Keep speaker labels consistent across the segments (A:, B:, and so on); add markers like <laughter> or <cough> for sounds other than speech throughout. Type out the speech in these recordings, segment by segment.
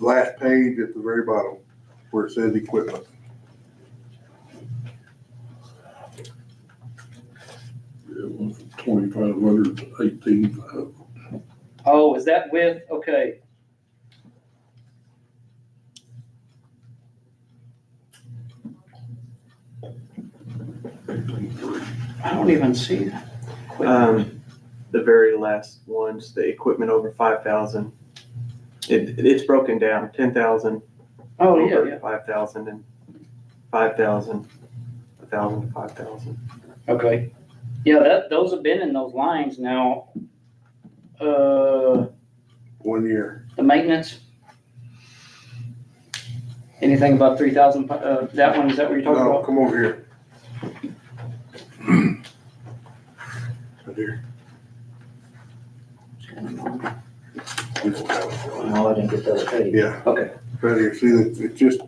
A: last page at the very bottom where it says equipment.
B: It went from twenty-five hundred to eighteen uh, five.
C: Oh, is that with, okay. I don't even see that.
D: Um, the very last ones, the equipment over five thousand. It, it's broken down, ten thousand.
C: Oh, yeah, yeah,
D: Five thousand and five thousand, a thousand to five thousand.
C: okay. Yeah, that, those have been in those lines now. Uh,
A: One year,
C: the maintenance. Anything above three thousand, uh, that one, is that what you're talking
A: no,
C: about?
A: come over here. <clears throat> Right here.
E: No, I didn't get those paid.
A: Yeah.
C: Okay.
A: Right here, see, it's it's just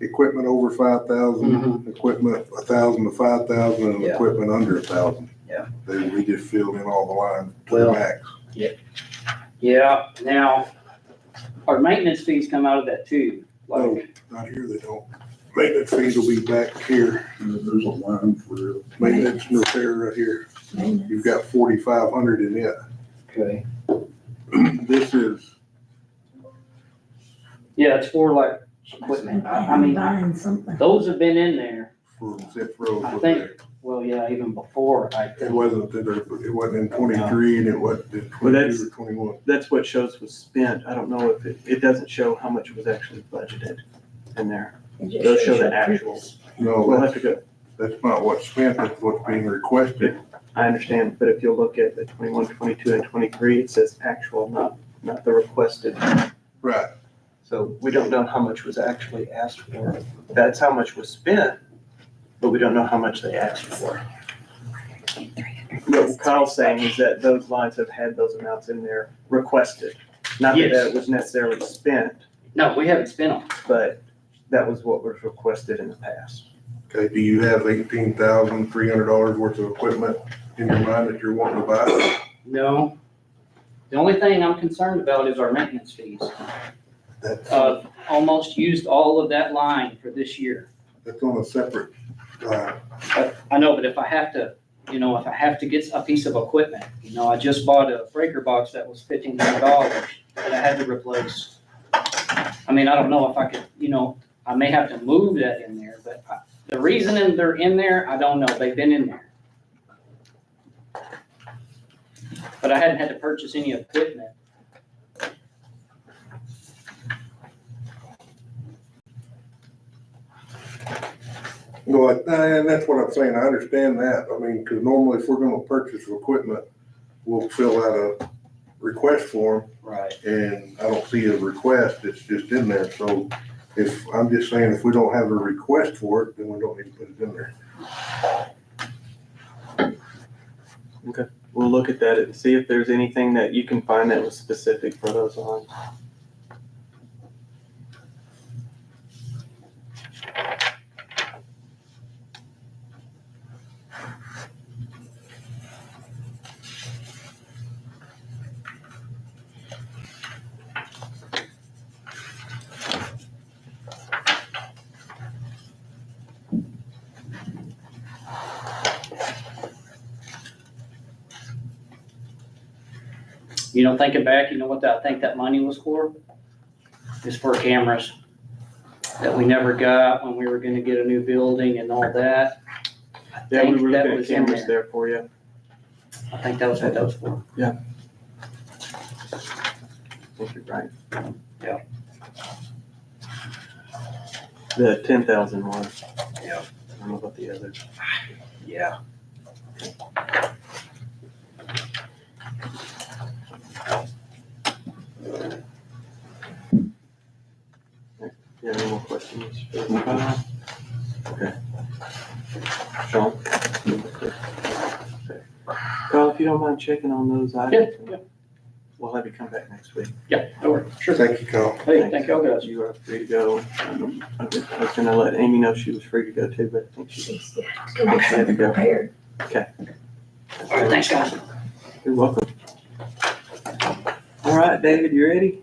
A: equipment over five thousand, equipment a thousand to five thousand, and
E: Mm-hmm. Yeah.
A: equipment under a thousand.
E: Yeah.
A: They, we just filled in all the lines to the
E: Well-
A: max.
C: Yeah, now, our maintenance fees come out of that too,
A: No,
C: like,
A: not here, they don't. Maintenance fees will be back here,
B: And then there's a line for it.
A: maintenance and repair right here. You've got forty-five hundred in it. <clears throat>
E: Okay,
A: This is,
C: yeah, it's for like equipment, I I mean,
F: Buying something.
C: Those have been in there,
A: for Zip Road.
C: I
A: was
C: think-
A: there.
C: well, yeah, even before, I
A: It
C: think.
A: wasn't, that there- it wasn't in twenty-three and it wasn't in
D: Well, that's-
A: twenty-two or twenty-one.
D: That's what shows was spent. I don't know if it, it doesn't show how much was actually budgeted in there. They'll show the actuals. We'll
C: Oh,
A: No,
D: have
A: that's,
D: to go,
A: that's not what's spent, that's what's being requested.
D: I understand, but if you'll look at the twenty-one, twenty-two and twenty-three, it says actual, not, not the requested.
A: Right,
D: So we don't know how much was actually asked for. That's how much was spent, but we don't know how much they asked for. What Kyle's saying is that those lines have had those amounts in there requested. Not that
C: Yes.
D: that was necessarily spent,
C: No, we haven't spent them.
D: but that was what was requested in the past.
A: okay, do you have eighteen thousand three hundred dollars worth of equipment in your mind that you're wanting to buy?
C: No. The only thing I'm concerned about is our maintenance fees.
A: That's,
C: Uh, almost used all of that line for this year.
A: that's on a separate, uh,
C: I know, but if I have to, you know, if I have to get a piece of equipment, you know, I just bought a breaker box that was fifteen hundred dollars that I had to replace. I mean, I don't know if I could, you know, I may have to move that in there, but I- the reason in- they're in there, I don't know. They've been in there. But I hadn't had to purchase any equipment.
A: No, I- and that's what I'm saying, I understand that, I mean, because normally if we're gonna purchase equipment, we'll fill out a request form,
C: Right.
A: and I don't see a request, it's just in there, so if, I'm just saying, if we don't have a request for it, then we don't need to put it in there.
D: We'll look at that and see if there's anything that you can find that was specific for those lines.
C: You know, thinking back, you know what I think that money was for? It's for cameras that we never got when we were gonna get a new building and all that. I
D: Yeah, we
C: think
D: were
C: that
D: looking at
C: was in
D: cameras there for you.
C: I think that was what that was for.
D: I think you're right.
C: Yeah.
D: The ten thousand one.
C: Yeah.
D: I don't know about the others.
C: Yeah.
D: Yeah, no more questions? Okay. Sean? Carl, if you don't mind checking on those items.
C: yeah.
D: We'll have you come back next week.
C: Yeah, no worries. Sure.
A: Thank you, Kyle.
C: Hey, thank y'all guys.
D: You are free to go. Um, I was I was gonna let Amy know she was free to go too, but I think she,
F: She's got to go get something prepared.
C: All right, Thanks, guys.
D: you're welcome. All right, David, you ready?